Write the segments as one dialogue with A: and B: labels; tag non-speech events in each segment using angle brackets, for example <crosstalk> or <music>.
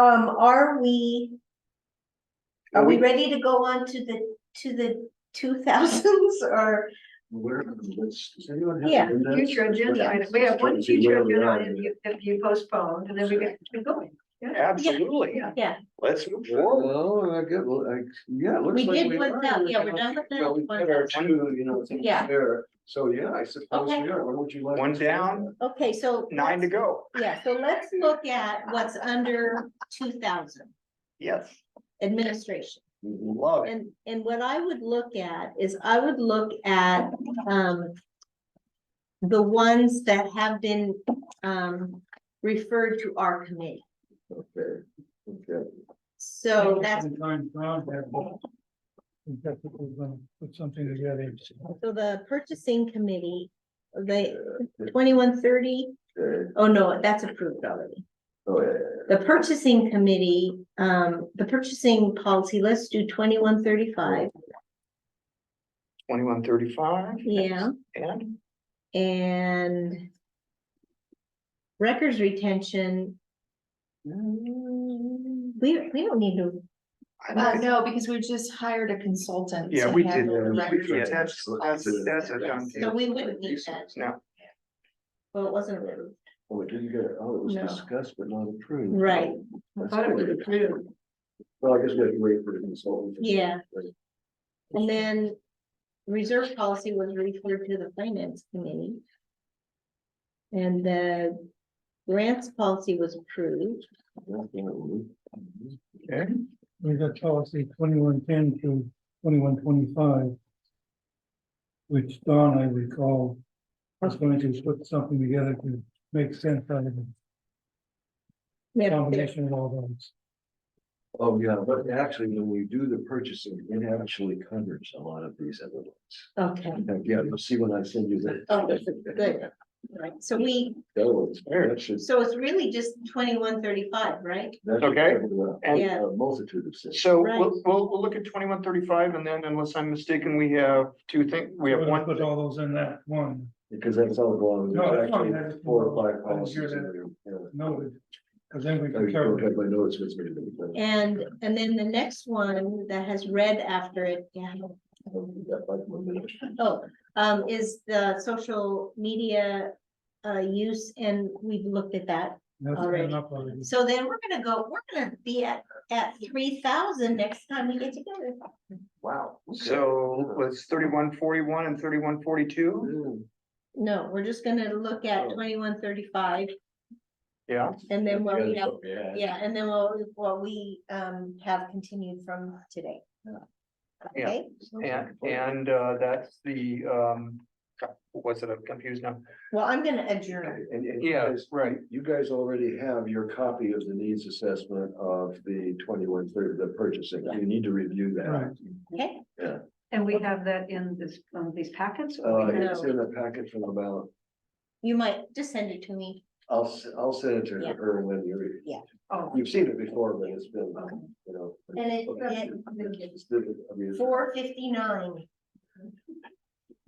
A: Um, are we, are
B: Well,
A: we ready to go on to the, to the two thousands or?
B: Where, let's, does anyone
A: Yeah,
B: have? agendas?
C: Future agenda
B: Yeah.
C: item, we have one
B: Let's see
C: future
B: where we
C: agenda
B: are.
C: item if- if you postponed, and then we get to going. Yeah.
D: Absolutely.
A: Yeah.
D: Let's move forward.
B: Well, I get, well, I, yeah, it looks
A: We
B: like.
A: did
B: are.
A: with that, yeah, we're done with that.
B: So we
A: One
B: did our
A: down.
B: two, you know, things
A: Yeah.
B: there. So, yeah, I suppose we
A: Okay.
B: are. What would you like?
D: One
B: to say?
D: down,
A: <laughs> Okay, so.
D: nine to go.
A: Yeah, so let's look at what's under two thousand
D: Yes,
A: administration.
B: Mhm.
D: love it.
A: And, and what I would look at is I would look at, um, the ones that have been, um, referred to our committee.
B: Okay, okay.
A: So that's,
E: Time proud that. we definitely gonna Put something together.
A: so the purchasing committee, the
D: Uh,
B: Yeah,
A: twenty-one thirty,
B: okay.
A: oh no, that's approved already.
B: Oh, yeah,
A: The purchasing committee, um, the purchasing policy, let's do twenty-one thirty-five,
D: Twenty-one thirty-five.
A: yeah.
D: And
A: And records retention. mm, We, we don't need to,
F: Uh,
D: I think,
F: no, because we just hired a consultant.
D: yeah,
F: to
D: we
F: handle
D: did. um,
F: the records.
D: Yeah, that's, that's, that's a done
A: so
D: deal.
A: we wouldn't need that.
D: No,
A: Well, it wasn't approved.
B: Oh, it didn't get, oh, it was
A: No.
B: discussed but not approved.
A: Right.
B: Oh,
C: I
B: that's
C: thought it was
B: good.
C: approved.
B: Well, I guess we have to wait for the consultant. to-
A: Yeah. And then reserve policy was referred to the finance committee. And the grants policy was approved.
D: okay,
E: We got policy twenty-one ten to twenty-one twenty-five. Which Don, I recall, was going to put something together to make sense out of the
A: We have-
E: combination of all those.
B: Oh, yeah, but actually, when we do the purchasing, it actually covers a lot of these other ones.
A: Okay,
B: In fact, Yeah, you'll see when I send you that.
A: Oh, good. right, so we,
B: <laughs> That was, that should.
A: so it's really just twenty-one thirty-five, right?
B: that should
D: Okay.
B: cover a-
D: And-
A: Yeah.
B: A multitude of things.
D: so
A: Right.
D: we'll, we'll, we'll look at twenty-one thirty-five and then unless I'm mistaken, we have two things, we have
E: We're
D: one.
E: gonna Put all those in that one
B: Because that's all going,
E: No,
B: there's
E: that's fine, I
B: actually
E: just-
B: four or five
E: I didn't
B: policies.
E: hear
B: in there, yeah.
E: noted. Cause then we
B: I
E: can
B: don't
E: cover.
B: have my notes with me, but-
A: And, and then the next one that has red after it, yeah,
B: I don't think that might be-
A: oh, um, is the social media. Uh, use and we've looked at that.
E: that's
A: already.
E: enough already.
A: So then we're gonna go, we're gonna be at, at three thousand next time we get together.
B: Wow. okay.
D: So let's thirty-one forty-one and thirty-one forty-two.
B: Mm,
A: No, we're just gonna look at twenty-one thirty-five
D: Yeah,
A: and then what we have,
B: Yeah.
A: yeah, and then what, we- what we, um, have continued from today.
D: Yeah.
A: Okay,
D: and, and, uh, that's the, um, what's it, I'm confused now.
A: well, I'm gonna adjourn.
B: And, and you
D: Yeah,
B: guys,
D: right.
B: you guys already have your copy of the needs assessment of the twenty-one thirty, the purchasing. You need to review that.
E: Right.
A: Okay,
C: And we have that in this, um, these packets? or
B: Uh,
C: we have-
B: it's in the packet from about,
A: you might just send it to me.
B: I'll, s- I'll send it to
A: Yeah.
B: her when you're,
C: Oh,
B: you've seen it before, but it's been,
C: okay.
B: you know.
A: And it- it-
B: It's different, I mean,
A: Four fifty-nine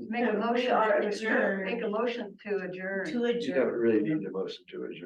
C: Make a
A: We
C: motion,
A: are
C: to adjourn.
A: adjourned.
C: make a motion to adjourn.
A: to
B: You
A: adjourn.
B: don't really need a motion to adjourn.